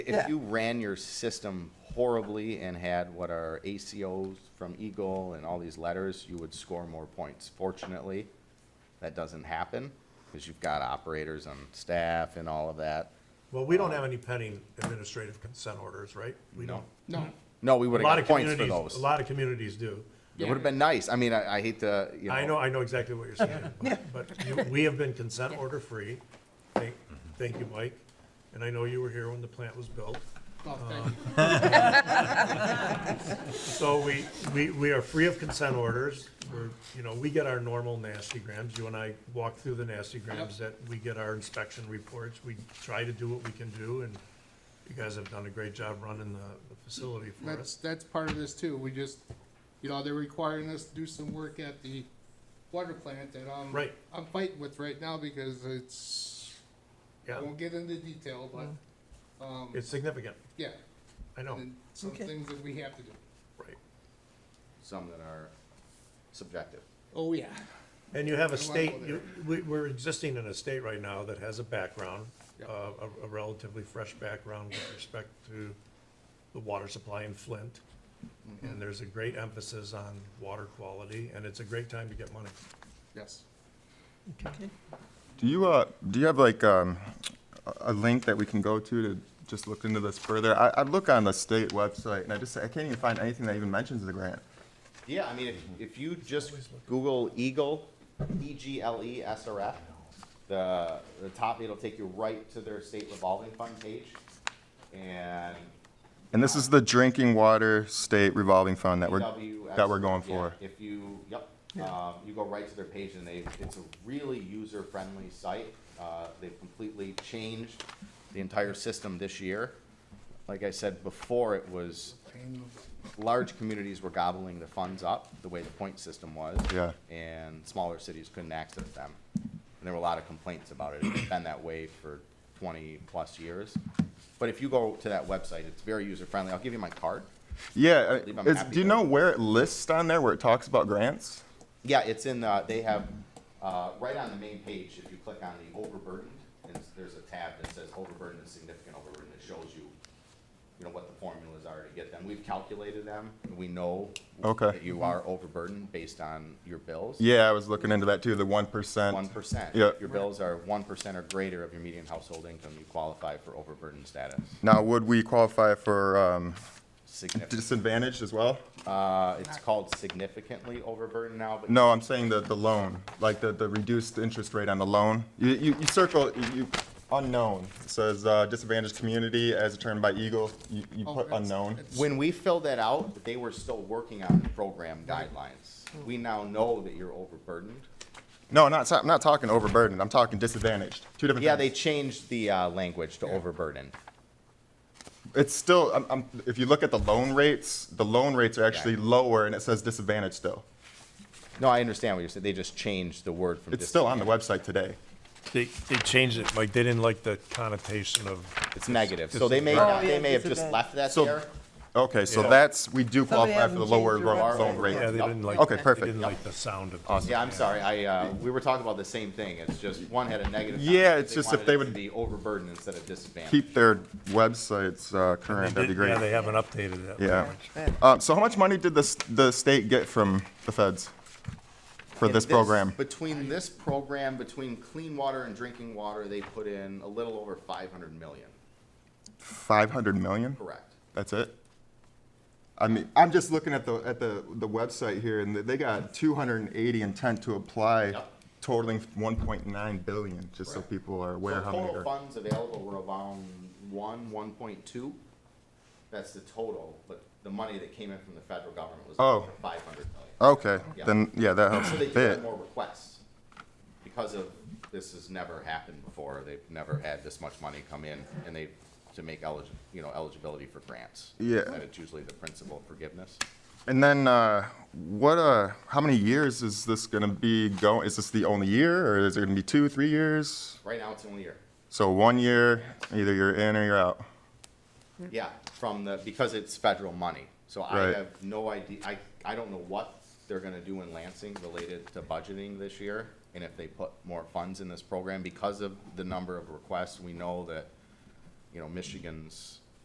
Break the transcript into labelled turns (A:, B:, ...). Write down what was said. A: If
B: Yeah.
A: you ran your system horribly and had what are ACOs from Eagle and all these letters, you would score more points. Fortunately, that doesn't happen because you've got operators on staff and all of that.
C: Well, we don't have any pending administrative consent orders, right? We
A: No.
C: don't.
D: No.
A: No, we
C: A
A: would
C: lot
A: have got
C: of
A: points for
C: communities,
A: those.
C: a lot of communities do.
A: It would have been nice. I mean, I, I hate to, you know.
C: I know, I know exactly what you're saying, but- but you- we have been consent order free. Thank, thank you, Mike. And I know you were here when the plant was built.
D: Oh, thank
C: um,
D: you.
C: So we, we, we are free of consent orders. We're, you know, we get our normal nasty grams. You and I walk through the nasty grams that we get our inspection reports. We try to do what we can do and you guys have done a great job running the, the facility for
D: That's,
C: us.
D: that's part of this too. We just, you know, they're requiring us to do some work at the water plant that I'm,
C: Right.
D: I'm fighting with right now because it's, I
C: Yeah,
D: won't get into detail, but, um,
C: it's significant.
D: yeah.
C: I know,
D: And some
B: Okay.
D: things that we have to do.
C: right.
A: Some that are subjective.
D: Oh, yeah.
C: And you have a
D: I wanna
C: state,
D: go
C: you, we, we're existing in a state right now that has a background,
D: Yep.
C: uh, a, a relatively fresh background with respect to the water supply in Flint. And there's a great emphasis on water quality, and it's a great time to get money.
D: Yes.
E: Do you, uh, do you have like, um, a- a link that we can go to to just look into this further? I, I look on the state website and I just, I can't even find anything that even mentions the grant.
A: Yeah, I mean, if, if you just Google Eagle, E G L E S R F, the, the top, it'll take you right to their state revolving fund page. And
E: And this is the Drinking Water State Revolving Fund that we're,
A: PWX
E: that we're going
A: yeah,
E: for.
A: If you, yep, um, you go right to their page and they, it's a really user-friendly site. Uh, they've completely changed the entire system this year. Like I said before, it was large communities were gobbling the funds up, the way the point system was.
E: Yeah.
A: And smaller cities couldn't access them. And there were a lot of complaints about it. It's been that way for twenty-plus years. But if you go to that website, it's very user-friendly. I'll give you my card.
E: Yeah,
A: believe
E: uh,
A: I'm
E: is,
A: happy
E: do you
A: to-
E: know where it lists on there, where it talks about grants?
A: Yeah, it's in, uh, they have, uh, right on the main page, if you click on the overburdened, it's, there's a tab that says overburdened and significant overburden. It shows you, you know, what the formulas are to get them. We've calculated them. We know
E: Okay.
A: that you are overburdened based on your bills.
E: Yeah, I was looking into that too, the one percent.
A: One percent.
E: Yeah.
A: Your bills are one percent or greater of your median household income, you qualify for overburden status.
E: Now, would we qualify for, um,
A: Significant,
E: disadvantaged as well?
A: uh, it's called significantly overburdened now, but
E: No, I'm saying the, the loan, like the, the reduced interest rate on the loan. You, you, you circle, you- you, unknown, it says uh, disadvantaged community as determined by Eagle, you, you
D: Oh,
E: put
D: that's-
E: unknown.
D: that's-
A: When we filled that out, they were still working on the program guidelines. We now know that you're overburdened.
E: No, not, so- I'm not talking overburdened, I'm talking disadvantaged, two different things.
A: Yeah, they changed the uh, language to overburden.
E: It's still, I'm, I'm, if you look at the loan rates, the loan rates are actually lower and it says disadvantaged still.
A: No, I understand what you're saying. They just changed the word from.
E: It's
A: dis-
E: still on the website today.
C: They, they changed it, like, they didn't like the connotation of.
A: It's negative. So they may, they may have just
B: disadvantage.
A: left that
E: So-
A: there.
E: Okay, so
C: Yeah.
E: that's, we do
B: Somebody
E: qualify for the
B: hasn't
E: lower
B: changed their
E: loan loan
A: website.
E: rate.
A: Yeah, they didn't like-
E: Okay, perfect.
C: didn't like the sound of.
A: Yeah, I'm sorry. I, uh, we were talking about the same thing. It's just one had a negative.
E: Yeah,
A: connotation.
E: it's just if
A: wanted
E: they
A: it to
E: would-
A: Be overburdened instead of disadvantaged.
E: Keep their websites uh, current, that'd be great.
C: haven't updated it.
E: Yeah. Uh, so how much money did the, st- the state get from the feds for
A: In
E: this program?
A: Between this program, between clean water and drinking water, they put in a little over five hundred million,
E: Five hundred million?
A: correct?
E: That's it? I mean, I'm just looking at the, at the, the website here and they got two hundred and eighty intent to apply
A: Yep.
E: totaling one point nine billion, just so
A: Correct.
E: people are
A: So
E: aware how many
A: total
E: are.
A: funds available were around one, one point two. That's the total, but the money that came in from the federal government was
E: Oh.
A: five hundred million.
E: Okay,
A: Yeah.
E: then, yeah, that helps
A: So
E: a
A: they do have
E: bit.
A: more requests because of, this has never happened before. They've never had this much money come in and they, to make elig, you know, eligibility for grants.
E: Yeah.
A: That it's usually the principle of forgiveness.
E: And then, uh, what, uh, how many years is this gonna be going? Is this the only year or is there gonna be two, three years?
A: Right now, it's only a year.
E: So one year, either you're in or you're out.
A: Yeah, from the, because it's federal money. So I
E: Right.
A: have no idea, I, I don't know what they're gonna do in Lansing related to budgeting this year. And if they put more funds in this program, because of the number of requests, we know that, you know, Michigan's